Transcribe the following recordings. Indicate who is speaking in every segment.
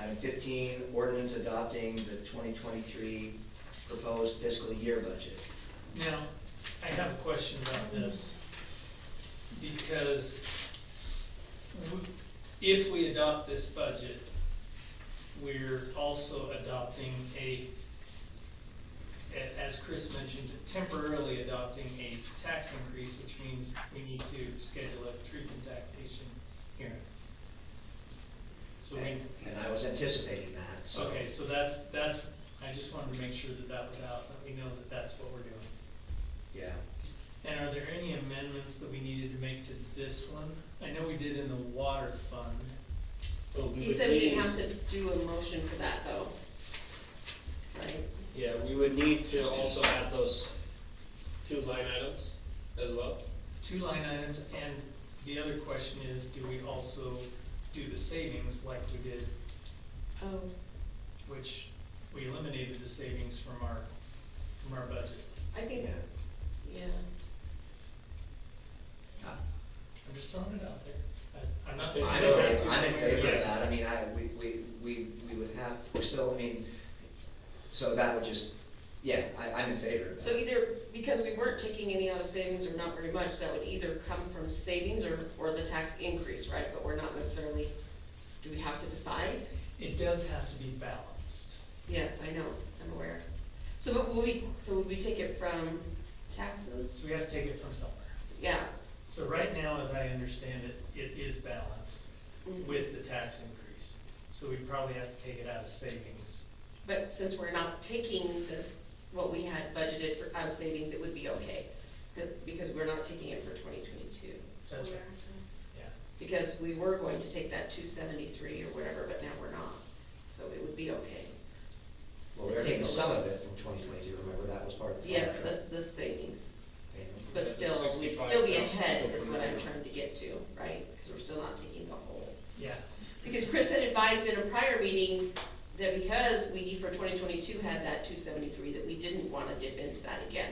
Speaker 1: Item fifteen, ordinance adopting the twenty twenty-three proposed fiscal year budget.
Speaker 2: Now, I have a question about this, because w- if we adopt this budget, we're also adopting a, a- as Chris mentioned, temporarily adopting a tax increase, which means we need to schedule a truth and taxation hearing. So we,
Speaker 1: And and I was anticipating that, so.
Speaker 2: okay, so that's, that's, I just wanted to make sure that that was out, that we know that that's what we're doing.
Speaker 1: Yeah.
Speaker 2: And are there any amendments that we needed to make to this one? I know we did in the water fund. but we
Speaker 3: He
Speaker 2: would
Speaker 3: said we
Speaker 2: need-
Speaker 3: didn't have to do a motion for that though. Right?
Speaker 4: Yeah, we would need to also add those two line items as well.
Speaker 2: Two line items, and the other question is, do we also do the savings like we did,
Speaker 3: Oh,
Speaker 2: which we eliminated the savings from our, from our budget?
Speaker 3: I think,
Speaker 1: Yeah.
Speaker 3: yeah,
Speaker 1: Uh,
Speaker 2: I'm just throwing it out there. I- I'm not
Speaker 4: I
Speaker 2: saying.
Speaker 4: think
Speaker 1: I'm
Speaker 4: so.
Speaker 1: in favor, I'm in favor of
Speaker 2: Yes.
Speaker 1: that, I mean, I, we, we, we, we would have, we're still, I mean, so that would just, yeah, I, I'm in favor of that.
Speaker 3: so either, because we weren't taking any out of savings or not very much, that would either come from savings or, or the tax increase, right? But we're not necessarily, do we have to decide?
Speaker 2: It does have to be balanced.
Speaker 3: Yes, I know, I'm aware. So but will we, so would we take it from taxes?
Speaker 2: So we have to take it from somewhere.
Speaker 3: Yeah.
Speaker 2: So right now, as I understand it, it is balanced.
Speaker 3: Mm.
Speaker 2: with the tax increase. So we probably have to take it out of savings.
Speaker 3: But since we're not taking the, what we had budgeted for out of savings, it would be okay, be- because we're not taking it for twenty twenty-two.
Speaker 2: That's right, yeah.
Speaker 3: Because we were going to take that two seventy-three or whatever, but now we're not, so it would be okay.
Speaker 1: Well, we're taking some of it from twenty twenty-two, remember, that was part of the.
Speaker 3: Yeah,
Speaker 1: contract
Speaker 3: the, the savings,
Speaker 1: payment.
Speaker 3: but
Speaker 4: Yeah, the
Speaker 3: still, we'd
Speaker 4: 65,000
Speaker 3: still be ahead
Speaker 4: still
Speaker 3: is what I'm
Speaker 4: coming out.
Speaker 3: trying to get to, right? Because we're still not taking the whole.
Speaker 2: Yeah,
Speaker 3: Because Chris had advised in a prior meeting that because we for twenty twenty-two had that two seventy-three, that we didn't wanna dip into that again.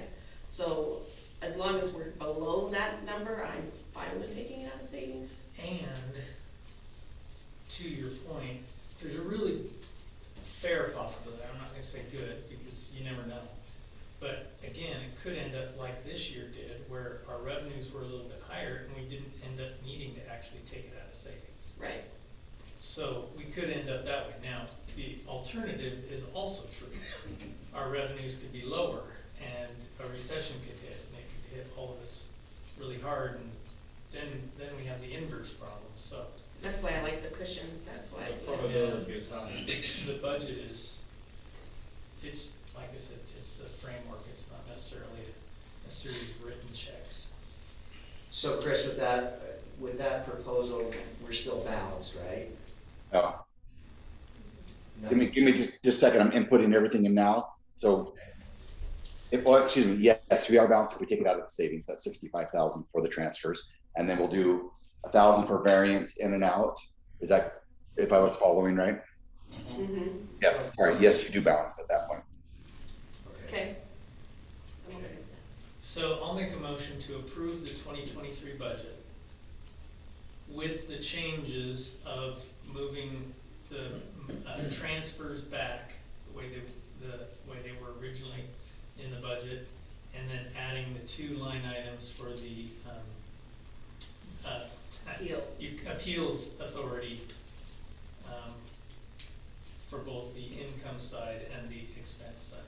Speaker 3: So as long as we're below that number, I'm fine with taking it out of savings.
Speaker 2: and to your point, there's a really fair possibility, I'm not gonna say good, because you never know. But again, it could end up like this year did, where our revenues were a little bit higher and we didn't end up needing to actually take it out of savings.
Speaker 3: Right,
Speaker 2: So we could end up that way. Now, the alternative is also true. Our revenues could be lower and a recession could hit and it could hit all of us really hard and then, then we have the inverse problem. So
Speaker 3: that's why I like the cushion, that's why.
Speaker 4: The probability is high.
Speaker 2: the budget is, it's, like I said, it's a framework. It's not necessarily a, a series of written checks.
Speaker 1: So Chris, with that, uh, with that proposal, we're still balanced, right?
Speaker 5: Oh,
Speaker 1: No?
Speaker 5: give me, give me just, just a second. I'm inputting everything in now. So, if, well, excuse me, yes, we are balanced. if We take it out of the savings, that's sixty-five thousand for the transfers. And then we'll do a thousand for variance in and out. Is that, if I was following right?
Speaker 3: Mm-hmm,
Speaker 5: Yes, sorry, yes, you do balance at that point.
Speaker 3: okay. I'm okay with that.
Speaker 2: So I'll make a motion to approve the twenty twenty-three budget with the changes of moving the uh, transfers back the way they, the way they were originally in the budget, and then adding the two line items for the, um, uh,
Speaker 3: Appeals.
Speaker 2: you- Appeals authority, um, for both the income side and the expense side.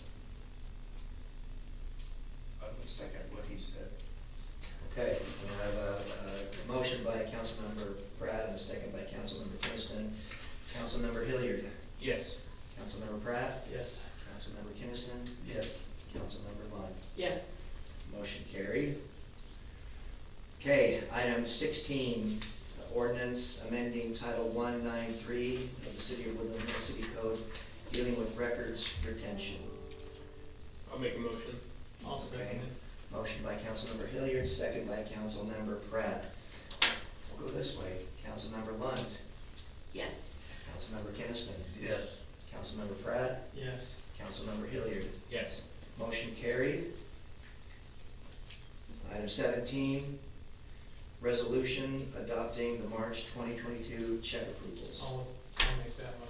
Speaker 6: I would second what he said.
Speaker 1: Okay, we have a, a motion by Councilmember Pratt and a second by Councilmember Kinnison. Councilmember Hilliard,
Speaker 4: Yes.
Speaker 1: Councilmember Pratt,
Speaker 2: Yes.
Speaker 1: Councilmember Kinnison,
Speaker 6: Yes.
Speaker 1: Councilmember Lund.
Speaker 3: Yes,
Speaker 1: Motion carried. Okay, item sixteen, ordinance amending Title one nine three of the City of Woodland Hills City Code dealing with records retention.
Speaker 4: I'll make a motion.
Speaker 2: I'll second
Speaker 1: Okay.
Speaker 2: it.
Speaker 1: Motion by Councilmember Hilliard, second by Councilmember Pratt. We'll go this way. Councilmember Lund,
Speaker 3: yes.
Speaker 1: Councilmember Kinnison,
Speaker 6: Yes.
Speaker 1: Councilmember Pratt,
Speaker 2: Yes.
Speaker 1: Councilmember Hilliard.
Speaker 4: Yes.
Speaker 1: Motion carried. Item seventeen, resolution adopting the March twenty twenty-two check approvals.
Speaker 2: I'll, I'll make that